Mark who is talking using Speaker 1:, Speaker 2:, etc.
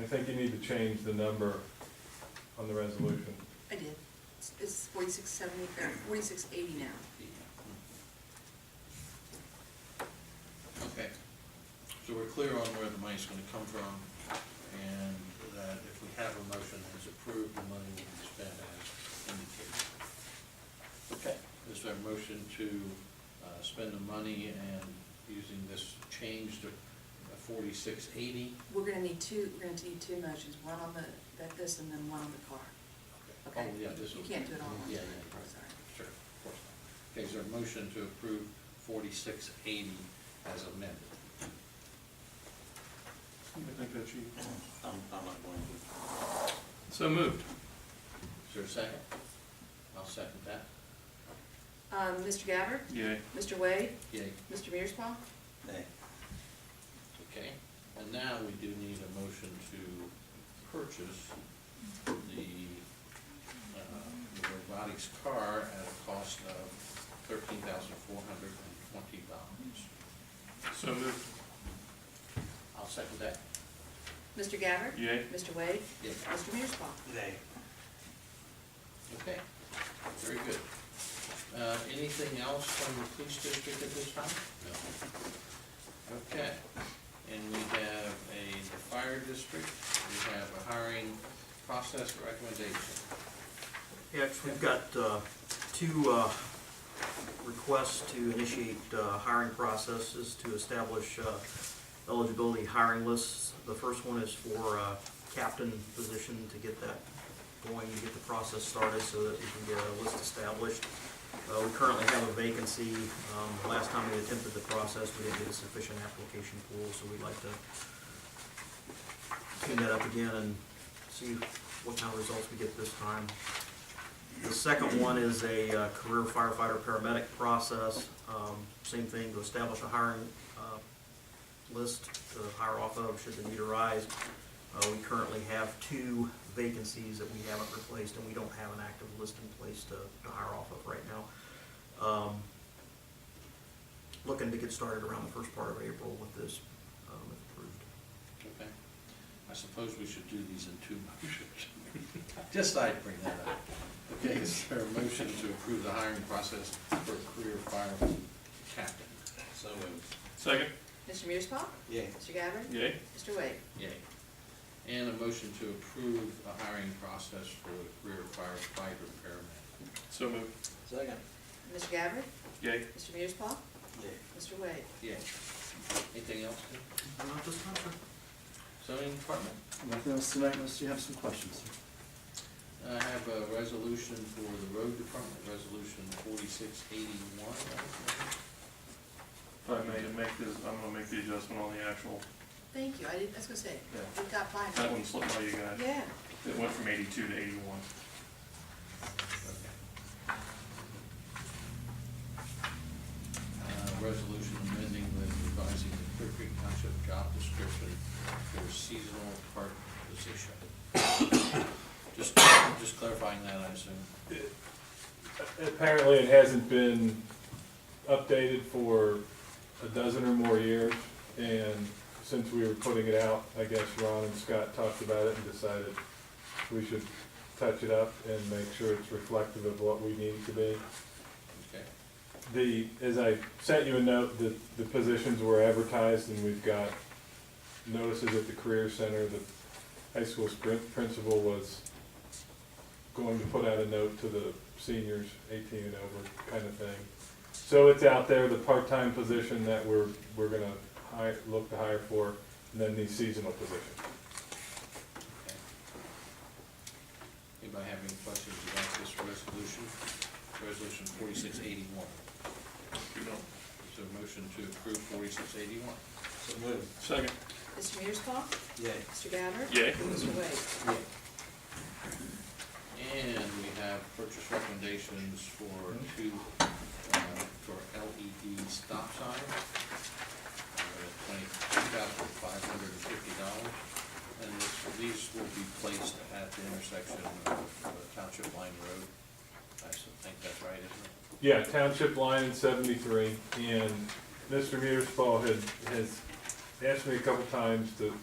Speaker 1: I think you need to change the number on the resolution.
Speaker 2: I did. It's- It's forty-six seventy, uh, forty-six eighty now.
Speaker 3: Okay, so we're clear on where the money's gonna come from, and that if we have a motion that's approved, the money will be spent as indicated. Okay, is there a motion to, uh, spend the money and using this change to forty-six eighty?
Speaker 2: We're gonna need two, we're gonna need two motions, one on the, that this and then one on the car, okay?
Speaker 3: Oh, yeah, this
Speaker 2: You
Speaker 3: will.
Speaker 2: can't do it all at once.
Speaker 3: Yeah, yeah,
Speaker 2: Sorry.
Speaker 3: sure, of course not. Okay, is there a motion to approve forty-six eighty as amended?
Speaker 1: I think that's you.
Speaker 3: I'm, I'm not going to.
Speaker 4: So moved.
Speaker 3: Is there a second? I'll second that.
Speaker 2: Um, Mr. Gabbard?
Speaker 4: Yay.
Speaker 2: Mr. Wade?
Speaker 3: Yay.
Speaker 2: Mr. Mearsclaw?
Speaker 3: Okay, and now we do need a motion to purchase the, uh, the robotics car at a cost of thirteen thousand four hundred and twenty dollars.
Speaker 4: So moved.
Speaker 3: I'll second that.
Speaker 2: Mr. Gabbard?
Speaker 4: Yay.
Speaker 2: Mr. Wade?
Speaker 3: Yay.
Speaker 2: Mr. Mearsclaw?
Speaker 3: Okay, very good. Uh, anything else from the police district at this time? No. Okay, and we have a the fire district, we have a hiring process recommendation.
Speaker 5: Yes, we've got uh, two uh, requests to initiate uh, hiring processes to establish uh, eligibility hiring lists. The first one is for uh, captain position to get that going, to get the process started so that we can get a list established. Uh, We currently have a vacancy. Um, Last time we attempted the process, we didn't get a sufficient application pool, so we'd like to clean that up again and see what kind of results we get this time. The second one is a uh, career firefighter paramedic process. Um, Same thing, to establish a hiring uh, list to hire off of should the need arise. Uh, We currently have two vacancies that we haven't replaced, and we don't have an active list in place to to hire off of right now. Um, Looking to get started around the first part of April with this um, if approved.
Speaker 3: Okay. I suppose we should do these in two motions. Just thought I'd bring that up. Okay, is there a motion to approve the hiring process for career fire captain? So moved.
Speaker 4: Second.
Speaker 2: Mr. Mearsclaw?
Speaker 3: Yay.
Speaker 2: Mr. Gabbard?
Speaker 4: Yay.
Speaker 2: Mr. Wade?
Speaker 3: Yay. And a motion to approve the hiring process for the career firefighter paramedic.
Speaker 4: So moved.
Speaker 3: Second.
Speaker 2: Mr. Gabbard?
Speaker 4: Yay.
Speaker 2: Mr. Mearsclaw? Mr. Wade?
Speaker 3: Yay. Anything else? Tim?
Speaker 5: Not this time, sir.
Speaker 3: Zoning department?
Speaker 6: Nothing else tonight unless you have some questions.
Speaker 3: I have a resolution for the road department, resolution forty-six eighty-one.
Speaker 4: If I may make this, I'm gonna make the adjustment on the actual,
Speaker 2: Thank you, I did, I was gonna say,
Speaker 4: Yeah.
Speaker 2: we got by
Speaker 4: that one slipped by you guys.
Speaker 2: Yeah,
Speaker 4: It went from eighty-two to eighty-one.
Speaker 3: Uh, Resolution amending and revising the Clear Creek Township job description for seasonal part position. Just, just clarifying that, I assume.
Speaker 1: Apparently, it hasn't been updated for a dozen or more years, and since we were putting it out, I guess Ron and Scott talked about it and decided we should touch it up and make sure it's reflective of what we need it to be.
Speaker 3: Okay,
Speaker 1: The, as I sent you a note, the, the positions were advertised, and we've got notices at the Career Center, the high school sprin- principal was going to put out a note to the seniors, eighteen and over, kind of thing. So it's out there, the part-time position that we're, we're gonna hire, look to hire for, and then the seasonal position.
Speaker 3: okay. Anybody have any questions about this resolution? Resolution forty-six eighty-one.
Speaker 4: You know.
Speaker 3: Is there a motion to approve forty-six eighty-one?
Speaker 6: So moved.
Speaker 4: Second.
Speaker 2: Mr. Mearsclaw?
Speaker 6: Yay.
Speaker 2: Mr. Gabbard?
Speaker 4: Yay.
Speaker 2: Mr. Wade?
Speaker 3: And we have purchase recommendations for two, uh, for LED stop signs, twenty-two thousand five hundred and fifty dollars. And this- these will be placed at the intersection of uh, Township Line Road. I s- think that's right, isn't it?
Speaker 1: Yeah, Township Line in seventy-three, and Mr. Mearsfall had, has asked me a couple times to